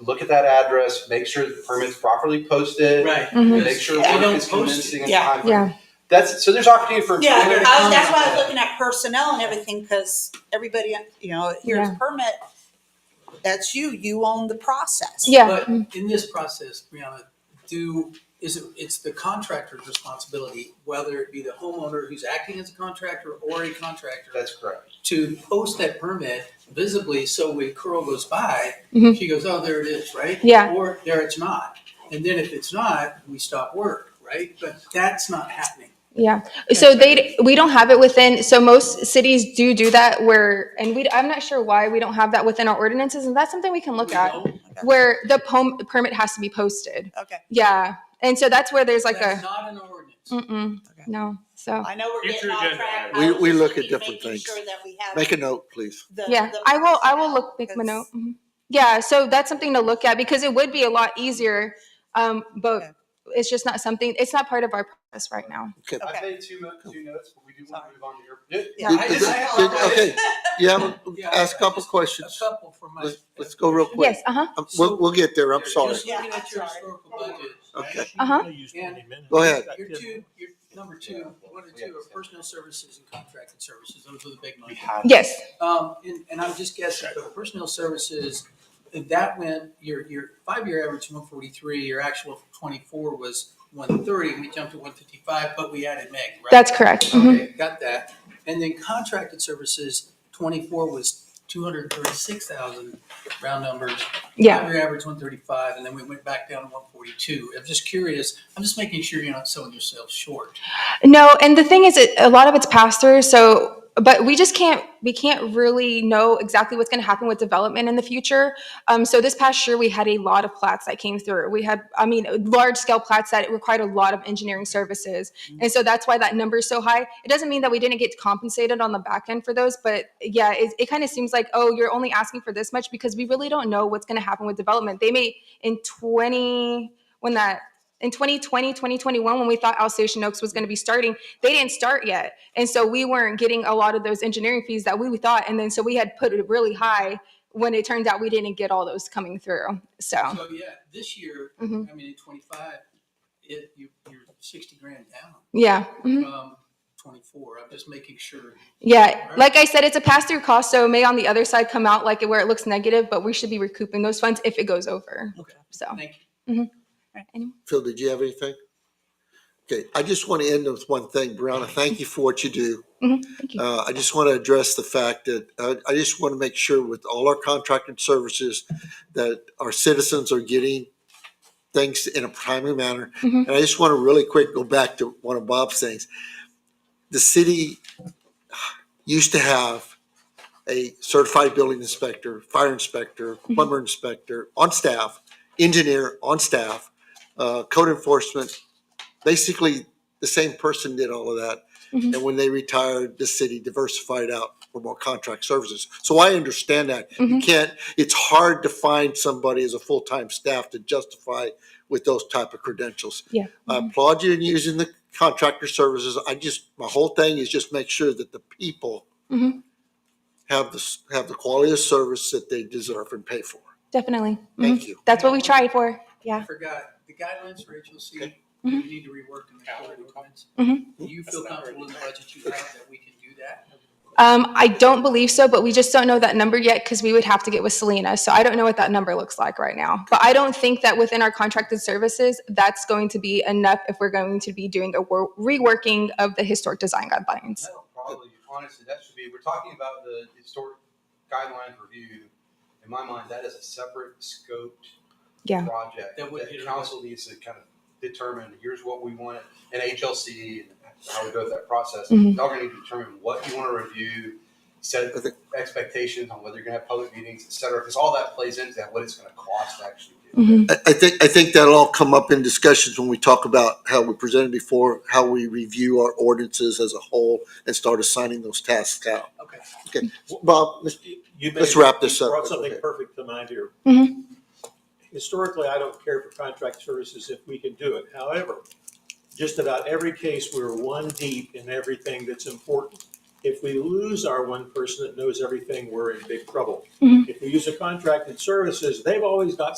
look at that address, make sure the permit's properly posted, Right. Mhm. make sure Because we work don't is post it. convincing and Mm-hmm. Yeah. timely. Yeah. That's, so there's opportunity for. Yeah, Where to I come was, that's why I from. was looking at personnel and everything, because everybody, you know, here's Yeah. permit. That's you, you own the process. Yeah. Mm, But in this process, Brianna, do, is it, it's the contractor's responsibility, whether it be the homeowner who's acting as a contractor or a contractor, That's correct. to post that permit visibly so when Carl goes by, Mhm. she goes, oh, there it is, right? Yeah. Or there it's not. And then if it's not, we stop work, right? But that's not happening. Yeah. So they, we don't have it within, so most cities do do that where, and we, I'm not sure why we don't have that within our ordinances. And that's something we can look We at don't. where the pom- permit has to be posted. Okay, Yeah. And so that's where there's like That's a, Mm-hmm. not an ordinance. mm-mm, Okay. no. So, I know we're Future getting off agenda track. item. I We- was we just look at thinking, different making things. sure that we have Make a note, please. the- yeah, the I will, I will look, make personnel, my note. 'cause- Mhm. Yeah. So that's something to look at because it would be a lot easier. Um, Okay. but it's just not something, it's not part of our process right now. Okay. I Okay. made two mo- two notes, but we do want to Sorry. move on to your. Yeah, Did- I did- just- I did- apologize. Okay, yeah, Yeah, ask a I couple just- questions. A couple for my. Let's, let's go real quick. Yes. Uh huh. Um, We'll, we'll get there, I'm sorry. Just looking at your Yeah, sorry. historical budget, Okay. Uh-huh. Go ahead. your two, your number two, one and two are personnel services and contracted services, those are the big We money. have. Yes. Um, and, and I'm just guessing, but personnel services, and that went, your, your five-year average one forty-three, your actual for twenty-four was one thirty, we jumped to one fifty-five, but we added Meg, right? That's correct. Mhm. Okay, got that. And then contracted services, twenty-four was two hundred and thirty-six thousand, round numbers. Yeah. Five-year average one thirty-five, and then we went back down to one forty-two. I'm just curious, I'm just making sure you're not selling yourself short. No, and the thing is, it, a lot of it's passed through. So, but we just can't we can't really know exactly what's going to happen with development in the future. Um, so this past year, we had a lot of plats that came through. We had, I mean, large scale plats that required a lot of engineering services, and so that's why that number is so high. It doesn't mean that we didn't get compensated on the back end for those, but yeah, it, it kind of seems like oh, you're only asking for this much because we really don't know what's going to happen with development. They may in twenty when that in 2020 2021 when we thought alsatian oaks was going to be starting they didn't start yet and so we weren't getting a lot of those engineering fees that we thought and then so we had put it really high when it turned out we didn't get all those coming through so So, yeah, this year, I Mhm. mean, in twenty-five, it, you, you're sixty grand down. yeah mhm. um, 24. I'm just making sure. yeah like i said it's a pass-through cost so it may on the other side come out like where it looks negative but we should be recouping those funds if it goes over Okay. so Thank you. Phil, did you have anything? Okay, I just want to end with one thing. Brianna, thank you for what you do. Mhm, thank you. Uh, I just want to address the fact that, uh, I just want to make sure with all our contracted services that our citizens are getting things in a timely manner. Mhm. And I just want to really quick go back to one of Bob's things. The city used to have a certified building inspector, fire inspector, Mm-hmm. plumber inspector on staff, engineer on staff, uh, code enforcement, basically the same person did all of that. Mhm. And when they retired, the city diversified out for more contract services. So I understand that. You Mhm. can't, it's hard to find somebody as a full-time staff to justify with those type of credentials. Yeah. I applaud you in using the contractor services. I just, my whole thing is just make sure that the people Mhm. have the, s- have the quality of service that they deserve and pay for. definitely Mhm. Thank you. that's what we tried for I yeah forgot the guidelines for HLC. We Mhm. need to rework in the code ordinance. Mhm. Do you feel comfortable in the budget you have that we can do that? Um, I don't believe so, but we just don't know that number yet because we would have to get with Selena. So I don't know what that number looks like right now. But I don't think that within our contracted services, that's going to be enough if we're going to be doing a wor- reworking of the historic design guidelines. No, probably, honestly, that should be, we're talking about the historic guidelines review. In my mind, that is a separate scoped Yeah. project That would be- that council needs to kind of determine, here's what we want, and HLC, and how we go through that process. Mhm. Y'all gonna need to determine what you wanna review, set I think- expectations on whether you're gonna have public meetings, et cetera, because all that plays into that, what it's gonna cost to actually do. Mhm. I, I think, I think that'll all come up in discussions when we talk about how we presented before, how we review our ordinances as a whole and start assigning those tasks out. Okay. Bob, Mr. You Let's made- wrap this you up. Brought Go something ahead. perfect to mind here. Mhm. Historically, I don't care for contract services if we can do it. However, just about every case, we're one deep in everything that's important. If we lose our one person that knows everything, we're in big trouble. Mhm. If we use a contracted services, they've always got